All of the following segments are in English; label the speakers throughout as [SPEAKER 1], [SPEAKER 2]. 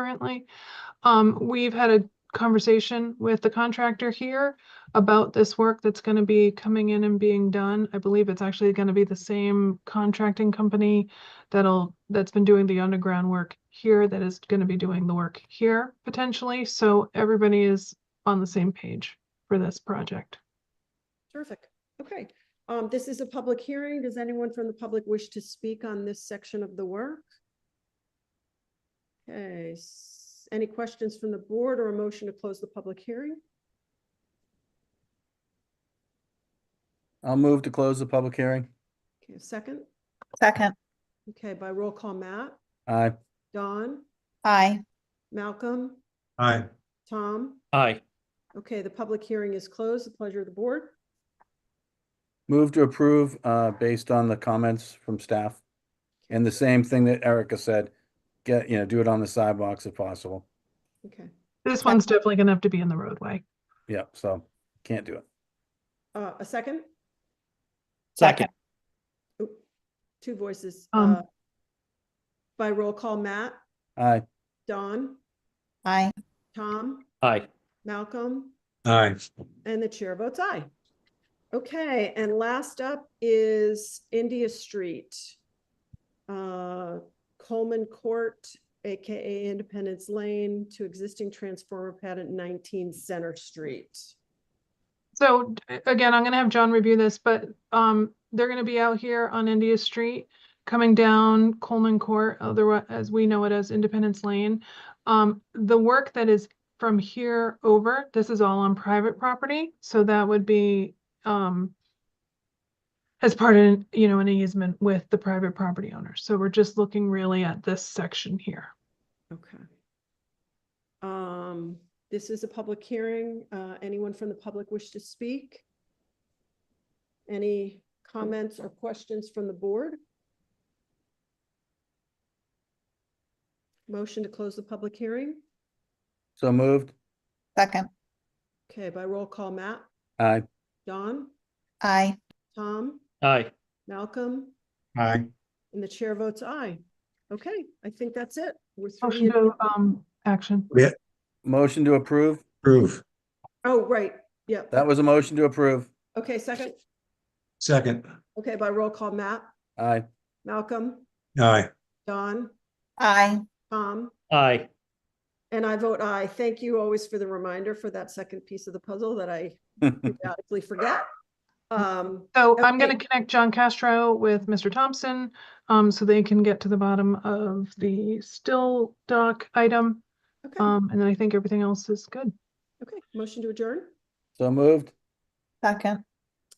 [SPEAKER 1] currently. Um, we've had a conversation with the contractor here about this work that's gonna be coming in and being done. I believe it's actually gonna be the same contracting company that'll, that's been doing the underground work here, that is gonna be doing the work here potentially, so everybody is on the same page for this project.
[SPEAKER 2] Terrific. Okay. Um, this is a public hearing. Does anyone from the public wish to speak on this section of the work? Okay, s- any questions from the board or a motion to close the public hearing?
[SPEAKER 3] I'll move to close the public hearing.
[SPEAKER 2] Okay, a second.
[SPEAKER 4] Second,
[SPEAKER 2] Okay, by roll call, Matt,
[SPEAKER 3] Aye.
[SPEAKER 2] Don,
[SPEAKER 4] aye.
[SPEAKER 2] Malcolm,
[SPEAKER 5] Aye.
[SPEAKER 2] Tom.
[SPEAKER 6] Aye.
[SPEAKER 2] Okay, the public hearing is closed. The pleasure of the board.
[SPEAKER 3] Move to approve, uh, based on the comments from staff. And the same thing that Erica said, get, you know, do it on the sidewalks if possible.
[SPEAKER 2] Okay,
[SPEAKER 1] This one's definitely gonna have to be in the roadway.
[SPEAKER 3] Yep, so can't do it.
[SPEAKER 2] uh, a second,
[SPEAKER 6] Second.
[SPEAKER 2] two voices.
[SPEAKER 1] Um.
[SPEAKER 2] uh, By roll call, Matt,
[SPEAKER 3] Aye.
[SPEAKER 2] Don,
[SPEAKER 4] Aye.
[SPEAKER 2] Tom,
[SPEAKER 6] Aye.
[SPEAKER 2] Malcolm,
[SPEAKER 5] Aye.
[SPEAKER 2] And the chair votes aye. Okay, and last up is India Street. uh, Coleman Court, AKA Independence Lane, to existing transformer pad at 19 Center Street.
[SPEAKER 1] So d- again, I'm gonna have John review this, but um, they're gonna be out here on India Street, coming down Coleman Court, otherwise, as we know it as Independence Lane. Um, the work that is from here over, this is all on private property, so that would be um as part of, you know, an easement with the private property owner. So we're just looking really at this section here.
[SPEAKER 2] Okay. Um, This is a public hearing. Uh, Anyone from the public wish to speak? Any comments or questions from the board? Motion to close the public hearing?
[SPEAKER 3] So moved.
[SPEAKER 4] Second,
[SPEAKER 2] Okay, by roll call, Matt,
[SPEAKER 3] Aye.
[SPEAKER 2] Don,
[SPEAKER 4] aye.
[SPEAKER 2] Tom,
[SPEAKER 6] Aye.
[SPEAKER 2] Malcolm,
[SPEAKER 5] Aye.
[SPEAKER 2] and the chair votes aye. Okay, I think that's it. We're through the-
[SPEAKER 1] Motion to um action.
[SPEAKER 3] Motion to approve.
[SPEAKER 5] Approve.
[SPEAKER 2] Oh, right, yep.
[SPEAKER 3] That was a motion to approve.
[SPEAKER 2] Okay, second.
[SPEAKER 5] Second.
[SPEAKER 2] Okay, by roll call, Matt,
[SPEAKER 3] Aye.
[SPEAKER 2] Malcolm,
[SPEAKER 5] Aye.
[SPEAKER 2] Don,
[SPEAKER 4] Aye.
[SPEAKER 2] Tom,
[SPEAKER 6] Aye.
[SPEAKER 2] Um, and I vote aye. Thank you always for the reminder for that second piece of the puzzle that I periodically forget. Um,
[SPEAKER 1] So I'm gonna
[SPEAKER 2] Okay.
[SPEAKER 1] connect John Castro with Mr. Thompson, um, so they can get to the bottom of the still doc item.
[SPEAKER 2] okay,
[SPEAKER 1] Um, and then I think everything else is good.
[SPEAKER 2] okay, motion to adjourn
[SPEAKER 3] So moved.
[SPEAKER 4] Second,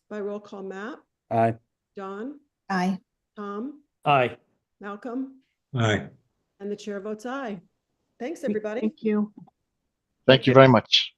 [SPEAKER 2] by roll call, Matt,
[SPEAKER 3] Aye.
[SPEAKER 2] Don,
[SPEAKER 4] aye.
[SPEAKER 2] Tom,
[SPEAKER 6] Aye.
[SPEAKER 2] Malcolm,
[SPEAKER 5] Aye.
[SPEAKER 2] and the chair votes aye. Thanks, everybody.
[SPEAKER 1] Thank you.
[SPEAKER 7] Thank you very much.